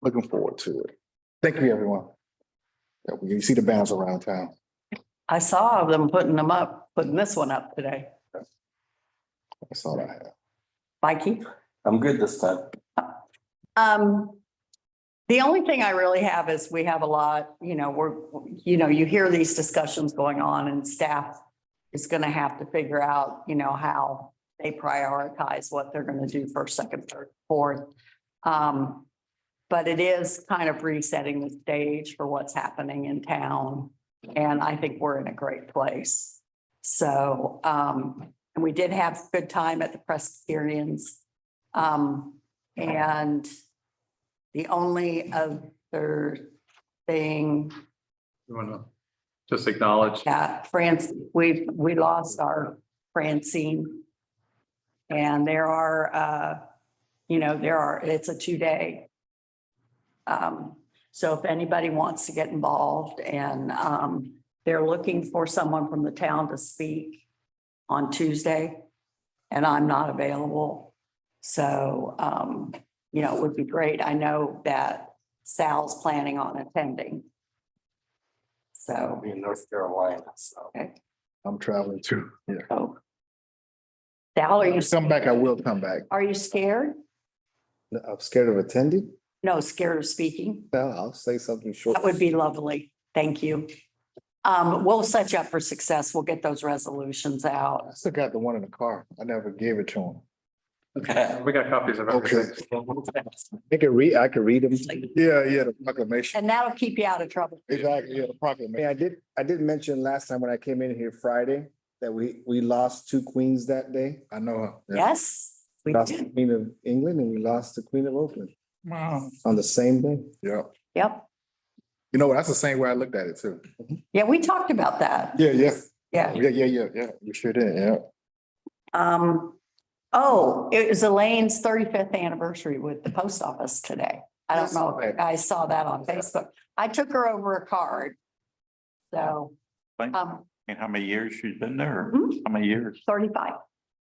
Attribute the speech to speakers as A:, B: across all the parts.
A: Looking forward to it. Thank you, everyone. Yeah, You see the banners around town.
B: I saw them putting them up, putting this one up today.
A: That's all I have.
B: Mikey?
C: I'm good this time.
B: Um, the only thing I really have is we have a lot, you know, we're, you know, you hear these discussions going on and staff is gonna have to figure out, you know, how they prioritize what they're gonna do first, second, third, fourth. Um, but it is kind of resetting the stage for what's happening in town. And I think we're in a great place. So, um, and we did have a good time at the Presbyterians. Um, and the only other thing
D: You want to just acknowledge,
B: that Uh, France, we've, we lost our Francine. And there are, uh, you know, there are, it's a two-day. Um, so if anybody wants to get involved and, um, they're looking for someone from the town to speak on Tuesday and I'm not available. So, um, you know, it would be great. I know that Sal's planning on attending. So.
C: I'll be in North Carolina, so.
A: I'm traveling too. Yeah.
B: Oh. Sal, are you,
A: Come back, I will come back.
B: are you scared?
E: I'm scared of attending.
B: No, scared of speaking?
E: Well, I'll say something short.
B: That would be lovely. Thank you. Um, we'll set you up for success. We'll get those resolutions out.
A: I still got the one in the car. I never gave it to him.
D: we got copies of
A: Okay.
D: everything.
E: I can read, I can read them.
A: Yeah, yeah, the proclamation.
B: And that'll keep you out of trouble.
A: Exactly, yeah, the
E: Yeah,
A: proclamation.
E: I did, I did mention last time when I came in here Friday that we, we lost two queens that day.
A: I know. yeah.
B: Yes, we
E: Lost the
B: do.
E: Queen of England and we lost the Queen of Oakland
A: Wow.
E: on the same day.
A: Yeah.
B: Yep.
A: You know, what? that's the same way I looked at it too.
B: Yeah, we talked about that.
A: Yeah, yeah,
B: Yeah.
A: yeah, yeah, yeah, yeah. You sure did, yeah.
B: Um, oh, it was Elaine's thirty-fifth anniversary with the post office today. I don't know if you guys saw that on Facebook. I took her over a card. So,
F: Thank-
B: um,
F: And how many years she's been there?
B: Mhm.
F: How many years?
B: thirty-five.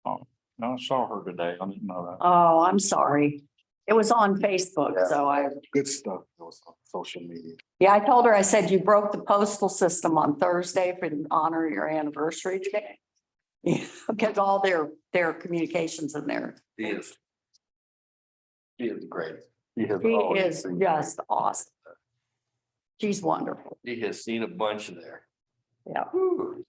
F: No, I saw her today. I didn't know that.
B: Oh, I'm sorry. It was on Facebook, so I,
A: Good stuff. It was on social media.
B: yeah, I told her, I said, you broke the postal system on Thursday for the honor of your anniversary today. Yeah, because all their, their communications in there.
C: He is. He is great. He has
B: She
C: always
B: is
C: been great.
B: just awesome. She's wonderful.
C: He has seen a bunch there.
B: Yeah.
C: Whew.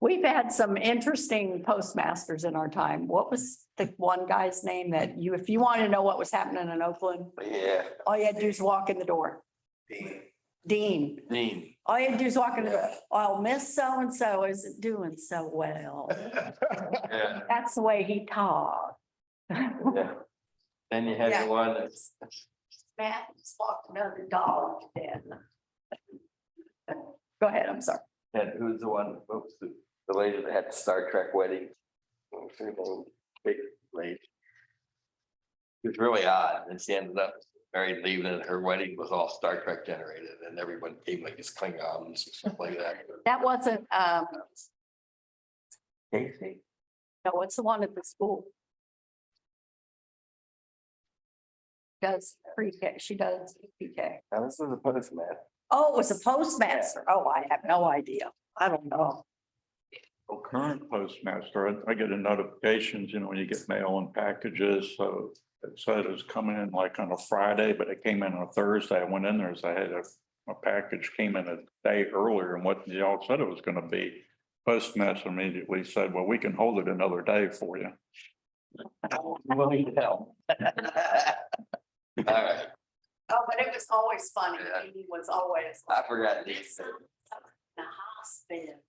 B: We've had some interesting postmasters in our time. What was the one guy's name that you, if you want to know what was happening in Oakland,
C: Yeah.
B: all you had to do is walk in the door.
C: Dean.
B: Dean,
C: Dean.
B: All you do is walk in the door,
C: Yeah.
B: oh, Miss so-and-so isn't doing so well.
C: Yeah,
B: That's the way he talked.
C: yeah. Then you had
B: Yeah.
C: the one that's,
B: Matt just walked another dog then. Go ahead, I'm sorry.
C: and who's the one, what was the, the lady that had the Star Trek wedding? What was her name? Oh, Big lady. It was really odd, and she ended up married leaving, and her wedding was all Star Trek generated, and everyone came like as Klingons or something like that.
B: That wasn't, um,
C: Casey?
B: no, what's the one at the school? Does pre-K, she does pre-K.
C: Now, this was a postman.
B: Oh, it was a postmaster. Oh, I have no idea. I don't know.
F: Well, Oh, Current postmaster, I- I get a notifications, you know, when you get mail and packages, so it said it was coming in like on a Friday, but it came in on a Thursday. I went in there, so I had a, a package came in a day earlier and what y'all said it was gonna be. Postmaster immediately said, well, we can hold it another day for you.
C: Willing to help. All right,
B: Oh, but it was always funny.
C: Yeah.
B: He was always
C: I forgot.
B: In
C: Nate's name.
B: the hospital.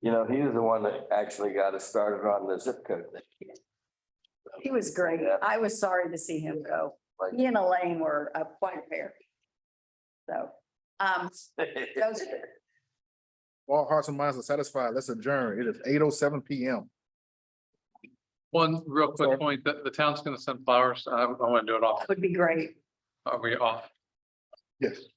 C: You know, he was the one that actually got us started on the zip code thing.
B: He was great.
C: Yeah.
B: I was sorry to see him go.
C: Like-
B: He and Elaine were uh, quite a pair. So, um, those are
A: All hearts and minds are satisfied. Let's adjourn. It is eight oh seven PM.
D: One real quick point, the, the town's gonna send flowers. I, I want to do it off.
B: would be great.
D: Are we off?
A: Yes.